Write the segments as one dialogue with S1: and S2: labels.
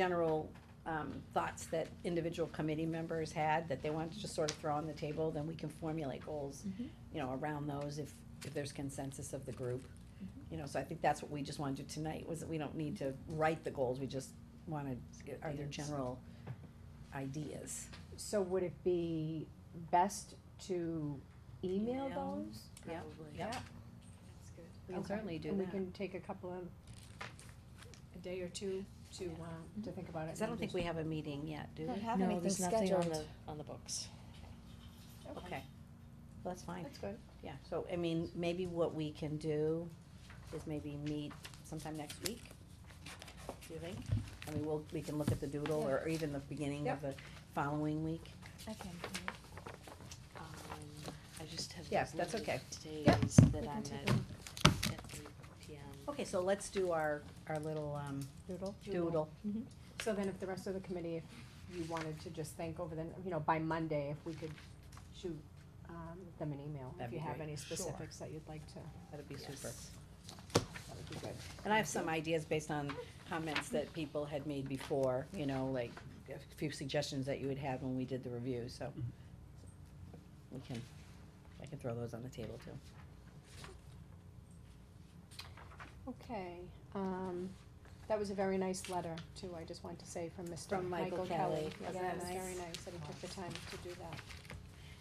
S1: general um, thoughts that individual committee members had that they wanted to just sort of throw on the table, then we can formulate goals,
S2: Mm-hmm.
S1: you know, around those if, if there's consensus of the group.
S2: Mm-hmm.
S1: You know, so I think that's what we just wanna do tonight, was that we don't need to write the goals, we just wanna, are there general ideas?
S2: So would it be best to email
S3: Email.
S2: those?
S1: Yeah.
S3: Probably.
S1: Yeah.
S4: That's good.
S2: We
S1: I'll certainly do
S2: And we
S1: that.
S2: can take a couple of, a day or two to,
S1: Yeah.
S2: uh, to think about it.
S1: Cause I don't think we have a meeting yet, do we?
S3: No, there's nothing on the, on the books.
S1: Okay, Well, that's fine.
S2: That's good.
S1: Yeah, so, I mean, maybe what we can do is maybe meet sometime next week, do you think? I mean, we'll, we can look at the doodle, or even the beginning of the following week.
S4: I can.
S3: Um, I just have.
S1: Yes, that's okay.
S2: Yep.
S3: Today's that I'm at, at three P M.
S1: Okay, so let's do our, our little, um,
S2: Doodle.
S1: doodle.
S2: So then if the rest of the committee, if you wanted to just think over the, you know, by Monday, if we could shoot, um, them an email,
S1: That'd
S2: if you
S1: be
S2: have
S1: great.
S2: any
S1: Sure.
S2: specifics that you'd like to,
S1: That'd be super.
S2: that would be good.
S1: And I have some ideas based on comments that people had made before, you know, like a few suggestions that you had had when we did the review, so. We can, I can throw those on the table too.
S2: Okay, um, that was a very nice letter too, I just want to say from Mr.
S1: From Michael
S2: Michael
S1: Kelly.
S2: Kelly.
S1: Wasn't
S2: Yeah,
S1: that
S2: it was
S1: nice?
S2: very nice that he took the time to do that.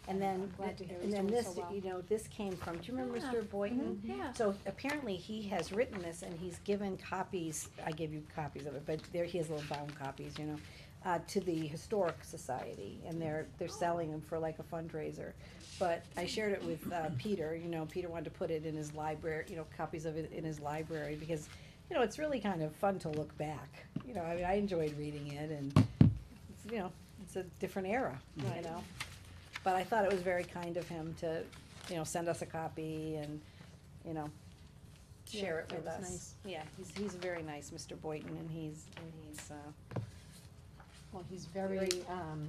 S1: And then,
S2: I'm glad to hear
S1: and
S2: he's
S1: then
S2: doing so
S1: this,
S2: well. Mm-hmm.
S1: you know, this came from, do you remember
S4: Yeah.
S1: Mr. Boynton?
S5: Mm-hmm.
S4: Yeah.
S1: So apparently he has written this and he's given copies, I gave you copies of it, but there, he has little bound copies, you know, uh, to the Historic Society and they're, they're selling them for like a fundraiser. But I shared it with, uh, Peter, you know, Peter wanted to put it in his library, you know, copies of it in his library because, you know, it's really kind of fun to look back. You know, I mean, I enjoyed reading it and, it's, you know, it's a different era, you
S2: Right.
S1: know? But I thought it was very kind of him to, you know, send us a copy and, you know,
S2: Yeah,
S1: share it
S2: that
S1: with
S2: was
S1: us.
S2: nice.
S1: Yeah, he's, he's very nice, Mr. Boynton, and he's, and he's, uh,
S2: Well, he's very, um,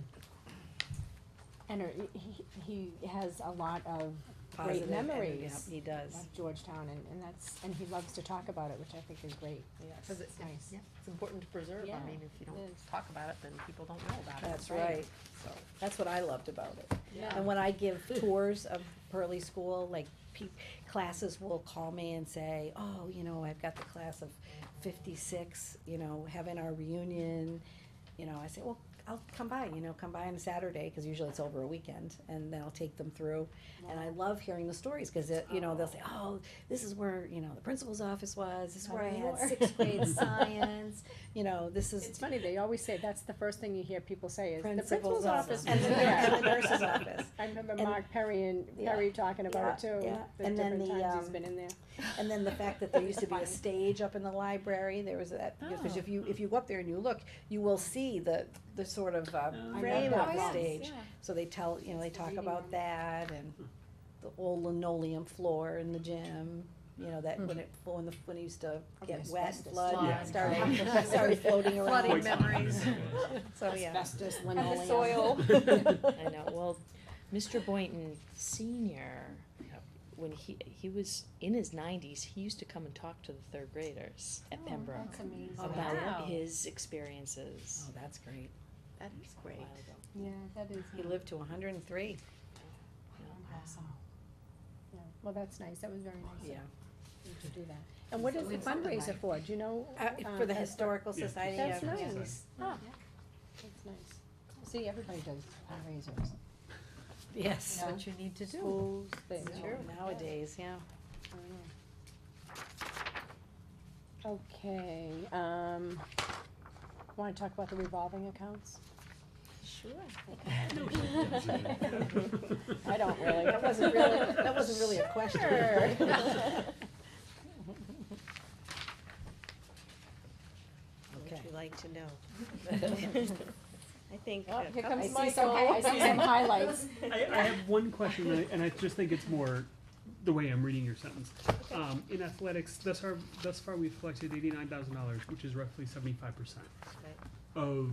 S2: ener- he, he he has a lot of
S1: positive.
S2: great
S1: and-
S2: memories
S1: Yep, he does,
S2: of Georgetown and, and that's, and he loves to talk about it, which I think is great.
S1: yes.
S5: Cause it,
S2: It's
S5: it-
S2: nice.
S5: yeah, it's important to preserve,
S2: Yeah,
S5: I mean, if you
S2: it
S5: don't
S2: is.
S5: talk about it, then people don't know about it.
S1: That's right, so, that's what I loved about it.
S2: Yeah.
S1: And when I give tours of Pearly School, like pe- classes will call me and say, "Oh, you know, I've got the class of '56, you know, having our reunion." You know, I say, "Well, I'll come by. You know, come by on a Saturday because usually it's over a weekend, and then I'll take them through." And I love hearing the stories because you know they'll say, "Oh, this is where you know the principal's office was. This is
S2: Not
S1: where I had
S2: anymore."
S1: Oh, sixth grade science. You know, this is
S2: It's funny, they always say, that's the first thing you hear people say is, the principal's office.
S1: and the,
S2: was there."
S1: and the nurse's office."
S2: I remember
S1: And-
S2: Mark Perry and
S1: Yeah.
S2: Perry talking about it
S1: Yeah,
S2: too,
S1: yeah.
S2: the
S1: And then
S2: different
S1: the,
S2: times he's
S1: um,
S2: been in there.
S1: And then the fact that there used to be a stage up in the library, there was that, because if you, if you go up there and you look, you will see the, the sort of, uh,
S2: I
S1: frame
S6: Oh,
S2: love
S1: of the
S2: that.
S1: stage. So they tell, you know, they
S2: It's the
S1: talk
S2: reading
S1: about
S2: room.
S1: that and the old linoleum floor in the gym, you know, that when it, when the, when it used to get
S2: Yes,
S1: wet,
S2: that's the
S1: flood,
S2: slide.
S1: and started, started floating
S5: Flooding
S1: around,
S5: memories.
S1: so, yeah. Oh,
S2: Asbestos, linoleum.
S3: I know, well, Mr. Boynton Senior,
S5: Yep.
S3: when he, he was in his nineties, he used to come and talk to the third graders at Pembroke
S2: That's amazing.
S1: Oh,
S3: about
S5: wow.
S3: his experiences.
S1: Oh, that's great.
S5: That is
S3: a
S5: great.
S3: while ago.
S2: Yeah, that is.
S1: He lived to hundred and three,
S2: Awesome. Yeah, well, that's nice, that was very nice
S1: yeah.
S2: of you to do that. And what is the fundraiser for, do you know?
S1: Uh,
S2: um,
S1: for the
S2: uh,
S1: historical society, yeah.
S2: That's
S1: yeah.
S2: nice, Ah, that's nice. See, everybody does fundraisers.
S1: Yes.
S2: No.
S5: What you need to do.
S2: Schools, they.
S1: Yeah, Nowadays, yeah.
S2: I know. Okay, um, wanna talk about the revolving accounts? I don't really,
S1: That wasn't really, that wasn't really a question. Would you like to know? I think.
S2: Oh,
S1: a
S2: here
S1: couple-
S2: comes
S1: I
S2: Michael,
S1: see some-
S2: I see some highlights.
S7: I, I have one question, and I, and I just think it's more the way I'm reading your sentence. Um, in athletics, thus far, thus far we've collected eighty-nine thousand dollars, which is roughly seventy-five percent of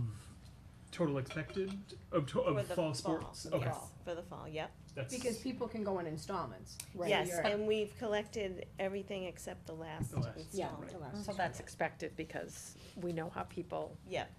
S7: total expected of to,
S6: For
S7: of
S6: the
S7: fall
S6: fall,
S7: sports.
S6: for the
S7: Okay,
S6: fall, for the fall, yep.
S7: that's
S2: Because people can go in installments. right?
S6: Yes,
S2: You're-
S6: and we've collected everything except the last
S7: The last,
S2: Yeah,
S6: installment.
S2: the last
S5: So that's expected because we know how people
S6: Yep,